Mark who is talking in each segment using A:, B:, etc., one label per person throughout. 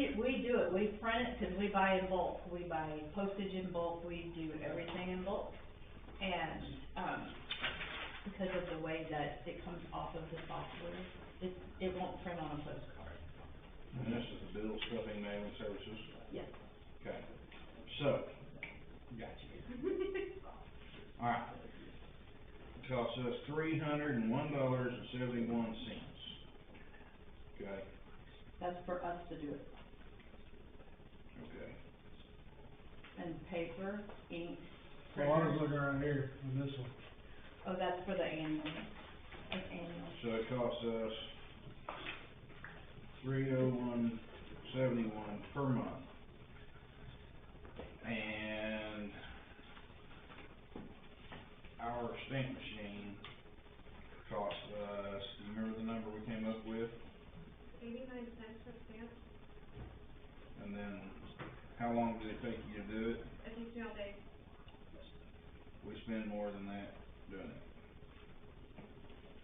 A: but we print it, cause we buy in bulk, we buy postage in bulk, we do everything in bulk. And, um, because of the way that it comes off of the software, it, it won't print on a postcard.
B: And this is the bill stuffing mailing services?
A: Yes.
B: Okay, so, got you. All right. Costs us three hundred and one dollars and seventy-one cents. Okay,
A: That's for us to do it.
B: okay.
A: And paper, ink,
C: Well, I was
A: printers.
C: looking right here on this one.
A: Oh, that's for the annual, that's annual.
B: So it costs us three oh one seventy-one per month. And our stamp machine cost us, you remember the number we came up with?
D: Eighty-nine cents a stamp,
B: And then, how long did it take you to do it?
D: it takes me all day.
B: We spend more than that doing it.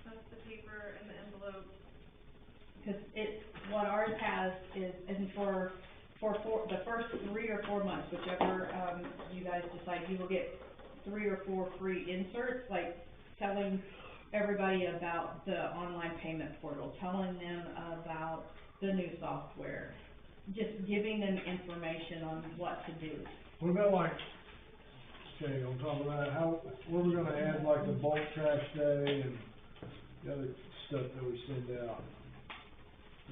D: That's the paper and the envelope.
A: Cause it, what ours has is, and for, for four, the first three or four months, whichever, um, you guys decide, you will get three or four free inserts, like telling everybody about the online payment portal, telling them about the new software, just giving them information on what to do.
C: What about like, okay, on top of that, how, where we gonna add like the bulk trash day and the other stuff that we send out?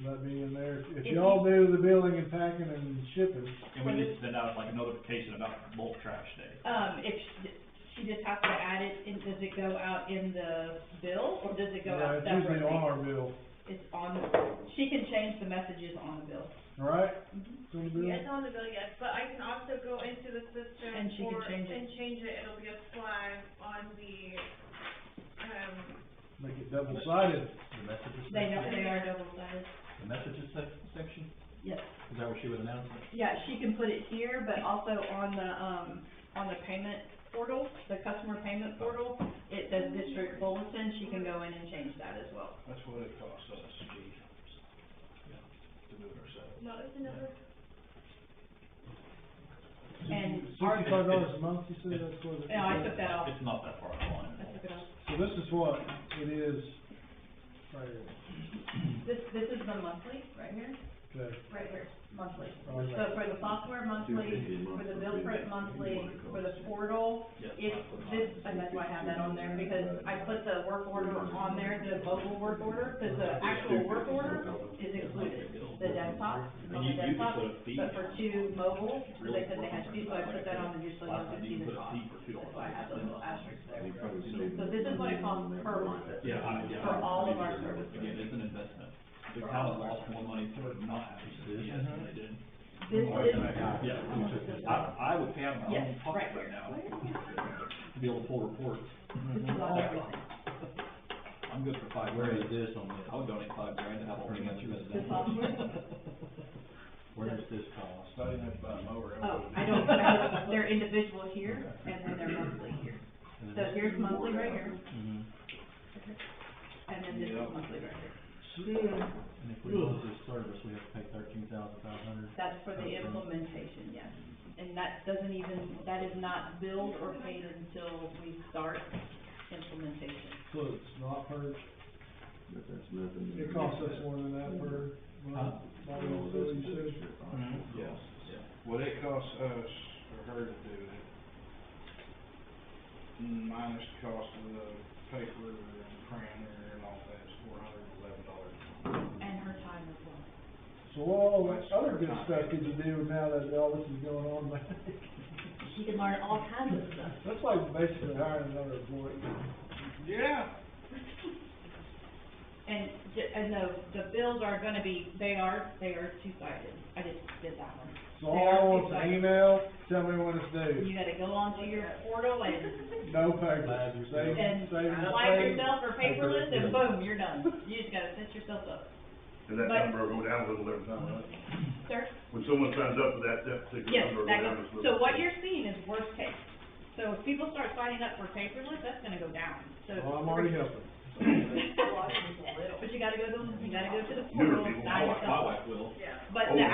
C: Will that be in there? If
A: If
C: y'all do the billing and packing and shipping,
E: And we need to send out like a notification about bulk trash day.
A: Um, if, she- she just has to add it, and does it go out in the bill, or does it go out
C: yeah, it's usually
A: separately?
C: on our bill,
A: It's on, she can change the messages on the bill.
C: alright?
A: Mhm.
C: So the bill,
D: It's on the bill, yes, but I can also go into the system
A: And she can
D: for,
A: change it.
D: and change it, it'll be a flag on the, um,
C: make it double sided.
E: The messages.
A: They know they are double sided.
E: The messages sec- section,
A: Yes.
E: is that where she was announcing?
A: Yeah, she can put it here, but also on the, um, on the payment portal, the customer payment portal, it says district bulletin, she can go in and change that as well.
B: That's what it costs us, Chief. To do it ourselves.
D: what was the number?
A: And
C: Sixty-five dollars a month, you said that's what it is?
A: No, I took that off.
E: It's not that far along.
A: I took it off.
C: So this is what it is, right
A: This, this is the monthly, right here?
C: here, okay.
A: Right here, monthly.
C: All right.
A: So for the software monthly, for the bill print monthly, for the portal, if this, and that's why I have that on there, because I put the work order on there, the mobile work order, because the actual work order is included, the desktop, on the desktop, but for two mobile, they said they had to, so I put that on the newsletter, so you can see the cost. That's why I have the little asterisk there. So this is what it costs per month.
E: Yeah, I, yeah.
A: For all of our services.
E: Again, it's an investment. The town lost more money for not having CPS
F: Mm-hmm.
E: than they did.
A: This is.
E: Yeah, I, I would pay out my
A: Yes,
E: own pocket
A: right here.
E: right now to be able to pull reports.
A: This is on everything.
E: I'm good for five
F: Where is
E: grand.
F: this on this?
E: I would donate five grand to have all the
F: Pretty much
E: messages.
A: The software?
F: Where does this cost?
B: I didn't have to buy a mower.
A: Oh, I don't, I don't, they're individual here, and then they're monthly here.
F: And
A: So
F: then
A: here's monthly right here,
F: this- mhm.
A: and then this is monthly right here.
F: And if we lose this service, we have to pay thirteen thousand five hundred.
A: That's for the implementation, yes. And that doesn't even, that is not billed or paid until we start implementation.
C: So it's not per,
G: But that's nothing.
C: it costs us more than that per month,
G: All
C: all
G: of
C: the
G: this
C: you
G: is
C: said?
G: extra cost.
B: Mhm.
E: Yes, yeah.
B: What it costs us for her to do it, Mm, minus the cost of the paper and printer and all that, is four hundred and eleven dollars.
A: And her time as well.
C: So all that other good stuff that you do now that all this is going on, like,
A: She can learn all kinds of stuff.
C: that's like basically hiring another employee.
B: Yeah.
A: And, j- and the, the bills are gonna be, they are, they are two-sided. I just did that one.
C: So all I want's an email, tell me when it's due,
A: You gotta go onto your portal and,
C: no paper, save,
A: and
C: save your
A: flag
C: paper.
A: yourself for paperless, and boom, you're done. You just gotta set yourself up.
H: And that
A: But-
H: number will go down a little every time, right?
A: Sir?
H: When someone signs up for that, that particular number
A: Yes,
H: will go
A: that
H: down
A: goes,
H: as little.
A: so what you're seeing is worst case. So if people start signing up for paperless, that's gonna go down, so.
C: Well, Oh, I'm already helping.
A: But you gotta go to, you gotta go to the
H: Newer
A: portal,
H: people,
A: sign
E: My wife- my
A: yourself up.
E: wife will.
D: Yeah.
A: But
H: Oh,
A: the